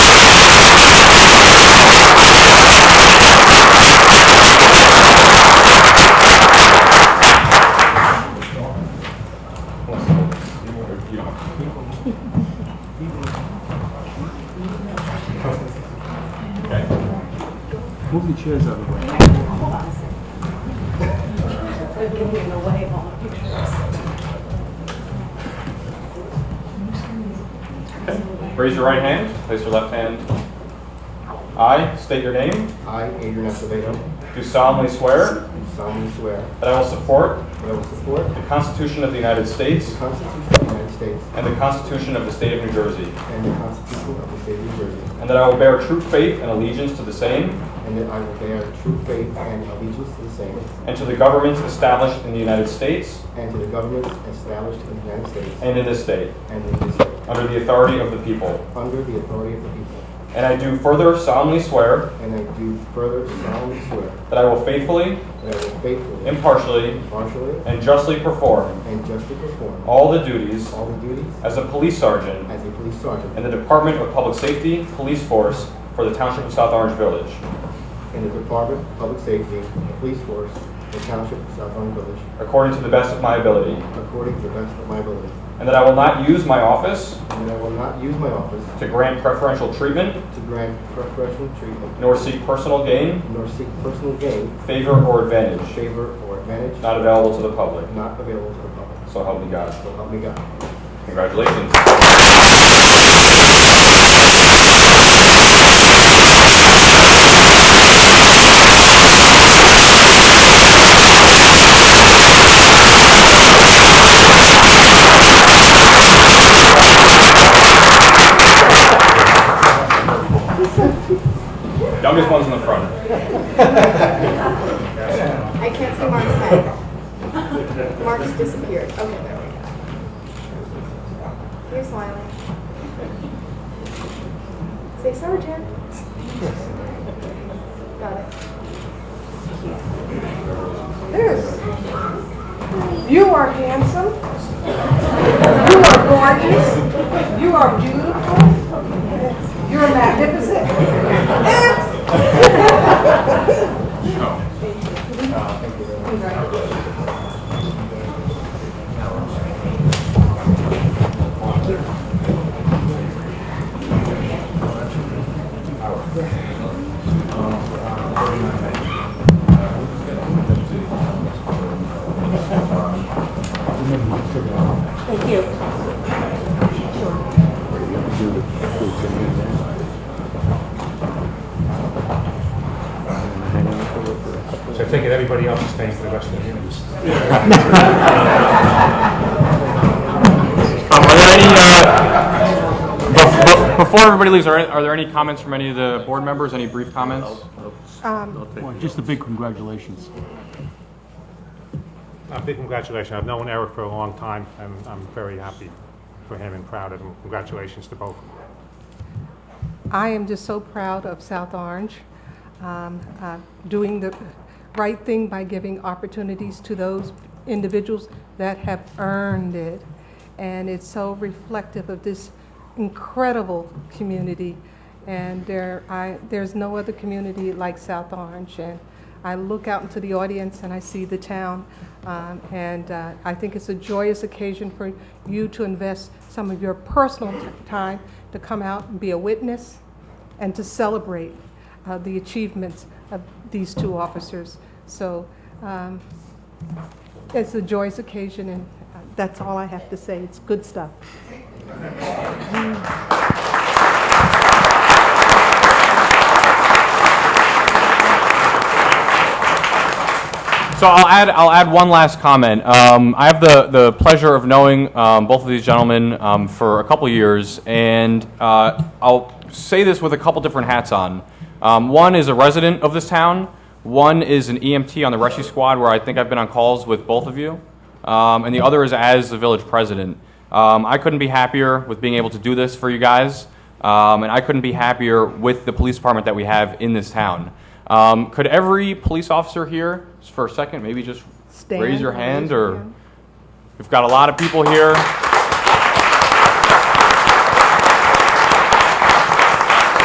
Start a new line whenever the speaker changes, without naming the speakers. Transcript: Okay.
Move the chairs out of the way.
Hold on a second. They're giving away all the pictures.
Okay. Raise your right hand, place your left hand. I state your name,
I, Adrian Acevedo,
do solemnly swear
do solemnly swear
that I will support
that I will support
the Constitution of the United States
the Constitution of the United States
and the Constitution of the State of New Jersey,
and the Constitution of the State of New Jersey,
and that I will bear true faith and allegiance to the same
and that I will bear true faith and allegiance to the same
and to the governments established in the United States
and to the governments established in the United States
and in this state,
and in this state,
under the authority of the people.
under the authority of the people.
And I do further solemnly swear
And I do further solemnly swear
that I will faithfully,
that I will faithfully,
impartially,
impartially,
and justly perform
and justly perform
all the duties
all the duties
as a police sergeant
as a police
in
sergeant
the Department of Public Safety Police Force for the Township of South Orange Village,
in the Department of Public Safety, the police force, the township of South Orange Village,
according to the best of my ability,
according to the best of my ability.
and that I will not use my office
And that I will not use my office
to grant preferential treatment
to grant preferential treatment,
nor seek personal gain,
nor seek personal gain,
favor, or advantage
favor, or advantage
not available to the public.
not available to the public.
So help me God.
So help me God.
Congratulations. Youngest one's in the front.
I can't see Mark's head. Mark's disappeared. Okay, there we go. You're smiling. Say Sergeant. Got it.
Yes. You are handsome. You are gorgeous. You are beautiful. You're magnificent. Thank you.
So I take it everybody else is staying for the rest of the meeting.
Um, Are there any, uh, bef- bef- before everybody leaves, are are there any comments from any of the board members? Any brief comments?
Well, Just a big congratulations.
Uh, Big congratulations. I've known Eric for a long time, and I'm very happy for him and proud of him. Congratulations to both.
I am just so proud of South Orange, um, uh, doing the right thing by giving opportunities to those individuals that have earned it. And it's so reflective of this incredible community. And there, I, there's no other community like South Orange. And I look out into the audience and I see the town. Um, and uh, I think it's a joyous occasion for you to invest some of your personal t- time to come out and be a witness and to celebrate uh, the achievements of these two officers. So um, it's a joyous occasion, and uh, that's all I have to say. It's good stuff.
So I'll add, I'll add one last comment. Um, I have the, the pleasure of knowing um, both of these gentlemen um, for a couple years, and uh, I'll say this with a couple different hats on. Um, one is a resident of this town. One is an EMT on the rescue squad, where I think I've been on calls with both of you, um, and the other is as the village president. Um, I couldn't be happier with being able to do this for you guys, um, and I couldn't be happier with the police department that we have in this town. Um, could every police officer here, just for a second, maybe just
Stand,
raise your
raise
hand,
your
or
hand.
we've got a lot of people here.